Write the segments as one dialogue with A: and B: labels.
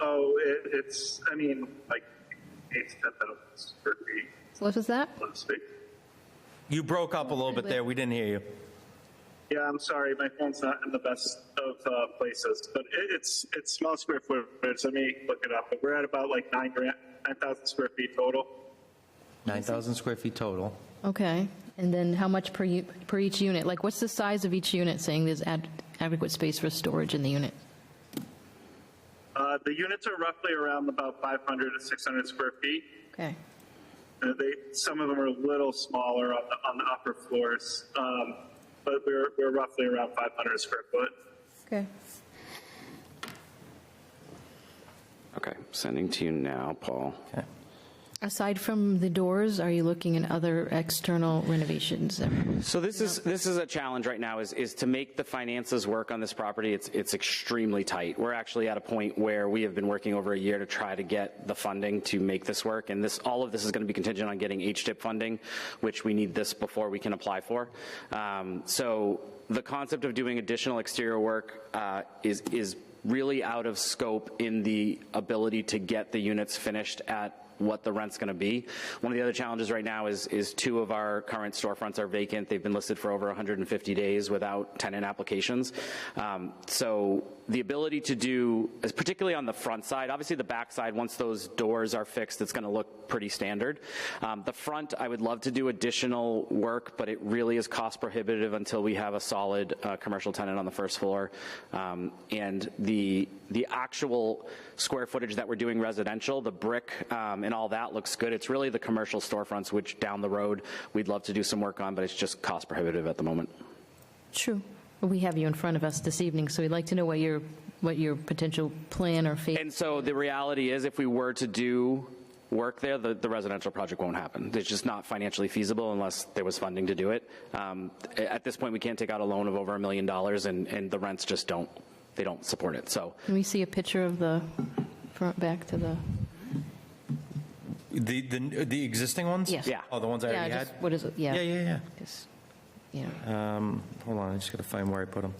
A: Oh, it, it's, I mean, like, eight to 10,000 square feet,
B: So what was that?
A: so to speak.
C: You broke up a little bit there. We didn't hear you.
A: Yeah, I'm sorry, my phone's not in the best of uh, places, but it, it's, it's small square footage, let me look it up, but we're at about like nine grand, 9,000 square feet total.
C: 9,000 square feet total.
B: Okay. And then how much per, u- per each unit? Like, what's the size of each unit saying there's ad- adequate space for storage in the unit?
A: Uh, The units are roughly around about 500 to 600 square feet.
B: Okay.
A: Uh, They, some of them are a little smaller on the, on the upper floors, um, but we're, we're roughly around 500 square foot.
B: Okay.
D: Okay, sending to you now, Paul.
C: Okay.
B: Aside from the doors, are you looking at other external renovations?
D: So this is, this is a challenge right now, is, is to make the finances work on this property. It's, it's extremely tight. We're actually at a point where we have been working over a year to try to get the funding to make this work. And this, all of this is going to be contingent on getting HDIP funding, which we need this before we can apply for. Um, So the concept of doing additional exterior work uh, is, is really out of scope in the ability to get the units finished at what the rent's going to be. One of the other challenges right now is, is two of our current storefronts are vacant. They've been listed for over 150 days without tenant applications. Um, So the ability to do, as particularly on the front side, obviously the back side, once those doors are fixed, it's going to look pretty standard. Um, The front, I would love to do additional work, but it really is cost prohibitive until we have a solid uh, commercial tenant on the first floor. Um, And the, the actual square footage that we're doing residential, the brick um, and all that looks good. It's really the commercial storefronts, which down the road, we'd love to do some work on, but it's just cost prohibitive at the moment.
B: True. We have you in front of us this evening, so we'd like to know what your, what your potential plan or fate.
D: And so the reality is, if we were to do work there, the, the residential project won't happen. It's just not financially feasible unless there was funding to do it. Um, a- At this point, we can't take out a loan of over a million dollars, and, and the rents just don't, they don't support it. So
B: Can we see a picture of the front back to the?
C: The, the, the existing ones?
B: Yes.
D: Yeah.
C: Oh, the ones I
B: Yeah,
C: already had?
B: just- What is it? Yeah.
C: Yeah, yeah,
B: Just- Yeah.
C: yeah. Um, Hold on, I just got to find where I put them.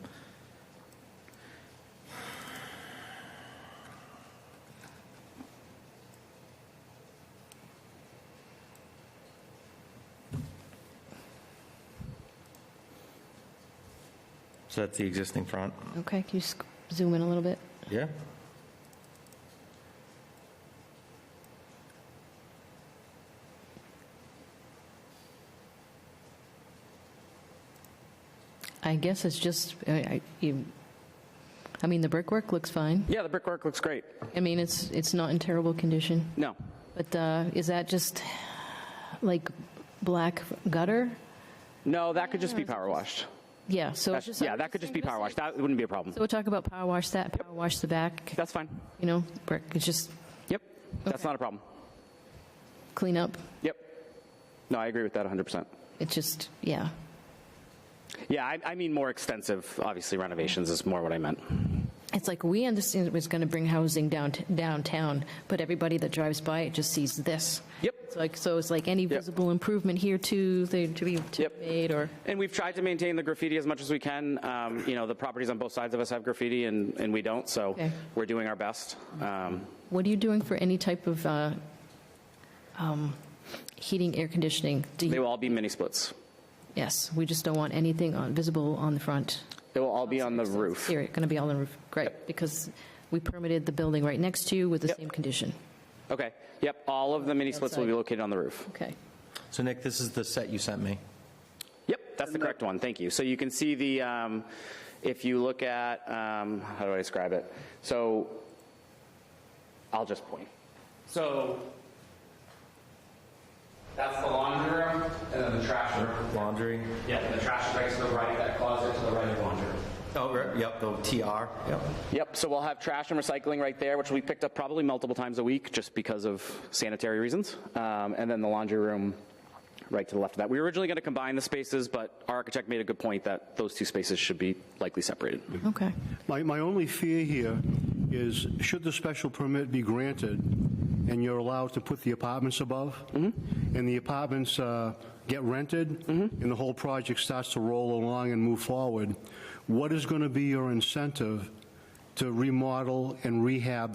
C: So that's the existing front?
B: Okay, can you sc- zoom in a little bit?
C: Yeah.
B: I guess it's just, I, I- you, I mean, the brickwork looks fine.
D: yeah, the brickwork looks great.
B: I mean, it's, it's not in terrible condition.
D: No,
B: But uh, is that just like black gutter?
D: no, that could just be power washed.
B: Yeah, so it's
D: That's-
B: just.
D: Yeah, that could just be power washed. That wouldn't be a problem.
B: So we'll talk about power wash that, power wash the back,
D: That's fine.
B: you know, brick, it's just
D: Yep, that's not a problem.
B: clean up.
D: Yep. No, I agree with that 100%.
B: It's just, yeah.
D: Yeah, I, I mean more extensive, obviously renovations is more what I meant.
B: It's like, we understand it was going to bring housing down downtown, but everybody that drives by it just sees this.
D: Yep.
B: It's like, so it's like any visible improvement here too, they, to be to
D: Yep.
B: be made or.
D: And we've tried to maintain the graffiti as much as we can. Um, You know, the properties on both sides of us have graffiti and, and we don't, so
B: Okay.
D: we're doing our best. Um,
B: What are you doing for any type of uh, um, heating, air conditioning? Do
D: They
B: you,
D: will all be mini splits.
B: yes, we just don't want anything on, visible on the front.
D: They will all be on the roof.
B: Here, going to be on the roof, great, because we permitted the building right next to you with the
D: Yep.
B: same condition.
D: Okay, yep, all of the mini splits will be
B: Outside.
D: located on the roof.
B: Okay.
C: So Nick, this is the set you sent me.
D: Yep, that's the correct one, thank you. So you can see the, um, if you look at, um, how do I describe it? So I'll just point. So that's the laundry room and then the trash room.
C: Laundry.
D: Yeah, and the trash is right to the right, that closet to the right of laundry.
C: Oh, right, yep, the TR, yep.
D: Yep, so we'll have trash and recycling right there, which we picked up probably multiple times a week just because of sanitary reasons. Um, and then the laundry room right to the left of that. We were originally going to combine the spaces, but our architect made a good point that those two spaces should be likely separated.
B: Okay.
E: My, my only fear here is, should the special permit be granted, and you're allowed to put the apartments above, and the apartments uh, get rented, and the whole project starts to roll along and move forward, what is going to be your incentive to remodel and rehab